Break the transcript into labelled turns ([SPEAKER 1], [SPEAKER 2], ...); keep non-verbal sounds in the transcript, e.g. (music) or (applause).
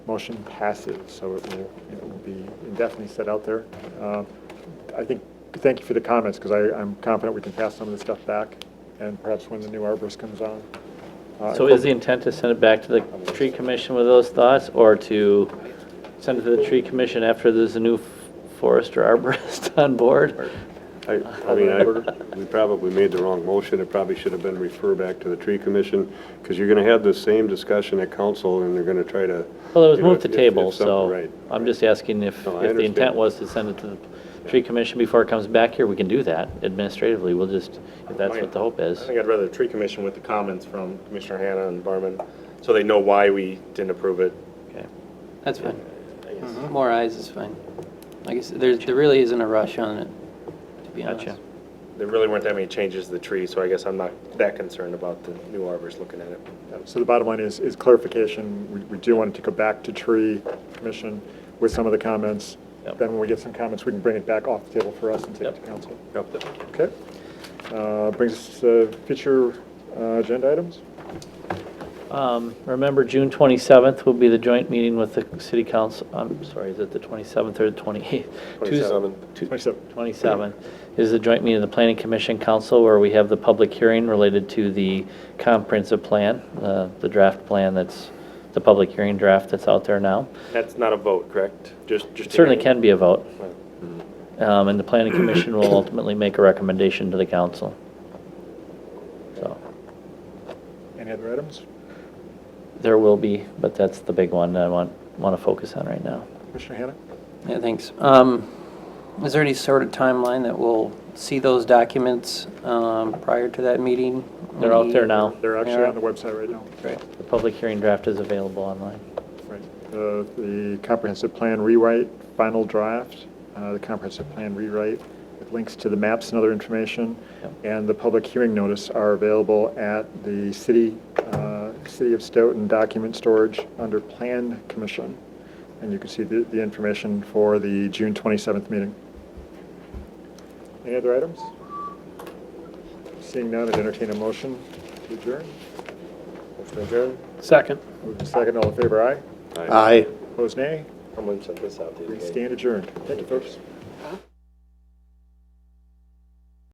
[SPEAKER 1] Motion passes, so it will, it will be indefinitely set out there. Uh, I think, thank you for the comments, because I, I'm confident we can pass some of this stuff back, and perhaps when the new arborist comes on. uh,
[SPEAKER 2] So is the intent to send it back to the tree commission with those thoughts, or to send it to the tree commission after there's a new f- forester (laughs) arborist on board?
[SPEAKER 3] I, I mean, I, we probably made the wrong motion, it probably should have been refer back to the tree commission, because you're gonna have the same discussion at council, and they're gonna try to.
[SPEAKER 2] Well, it was
[SPEAKER 3] you know,
[SPEAKER 2] moved to
[SPEAKER 3] if- if
[SPEAKER 2] table,
[SPEAKER 3] some-
[SPEAKER 2] so
[SPEAKER 3] Right.
[SPEAKER 2] I'm just asking if,
[SPEAKER 3] No, I
[SPEAKER 2] if the intent
[SPEAKER 3] understand.
[SPEAKER 2] was to send it to the tree commission before it comes back here, we can do that administratively, we'll just, if that's what the hope
[SPEAKER 4] I
[SPEAKER 2] is.
[SPEAKER 4] think I'd rather the tree commission with the comments from Commissioner Hanna and Barman, so they know why we didn't approve it.
[SPEAKER 2] Okay.
[SPEAKER 5] That's fine. More eyes is fine. I guess there, there really isn't a rush on it, to be honest.
[SPEAKER 2] Gotcha.
[SPEAKER 4] There really weren't that many changes to the tree, so I guess I'm not that concerned about the new arbors looking at it.
[SPEAKER 1] So the bottom line is, is clarification, we, we do want it to go back to tree commission with some of the comments.
[SPEAKER 2] Yep.
[SPEAKER 1] Then when we get some comments, we can bring it back off the table for us and take it to
[SPEAKER 2] Yep.
[SPEAKER 1] council.
[SPEAKER 3] Yep.
[SPEAKER 1] Okay. Uh, Brings us to future uh, agenda items.
[SPEAKER 2] Um, Remember, June 27th will be the joint meeting with the city council, I'm sorry, is it the 27th or the 28th? Tues-
[SPEAKER 3] 27th.
[SPEAKER 2] Tu-
[SPEAKER 1] 27th.
[SPEAKER 2] 27th is the joint meeting of the Planning Commission Council where we have the public hearing related to the comprehensive plan, uh, the draft plan that's, the public hearing draft that's out there now.
[SPEAKER 4] That's not a vote, correct? Just, just.
[SPEAKER 2] It Certainly can be a vote, Um, and the Planning Commission will ultimately make a recommendation to the council. So,
[SPEAKER 1] Any other items?
[SPEAKER 2] there will be, but that's the big one that I want, want to focus on right now.
[SPEAKER 1] Commissioner Hanna?
[SPEAKER 5] Yeah, thanks. Um, is there any sort of timeline that we'll see those documents, um, prior to that meeting?
[SPEAKER 2] They're out there now.
[SPEAKER 1] They're actually on the website right now.
[SPEAKER 5] Great.
[SPEAKER 2] The public hearing draft is available online.
[SPEAKER 1] Right. Uh, The comprehensive plan rewrite, final draft, uh, the comprehensive plan rewrite with links to the maps and other information, and the public hearing notice are available at the city, uh, City of Stoughton document storage under Plan Commission. And you can see the the information for the June 27th meeting. Any other items? Seeing none, I'd entertain a motion to adjourn.
[SPEAKER 4] Motion adjourned.
[SPEAKER 5] Second.
[SPEAKER 1] Move to second, all in favor, aye?
[SPEAKER 3] Aye.
[SPEAKER 1] Opposed, nay?
[SPEAKER 4] I'm gonna check this out. dude.
[SPEAKER 1] We stand adjourned. Thank you, folks.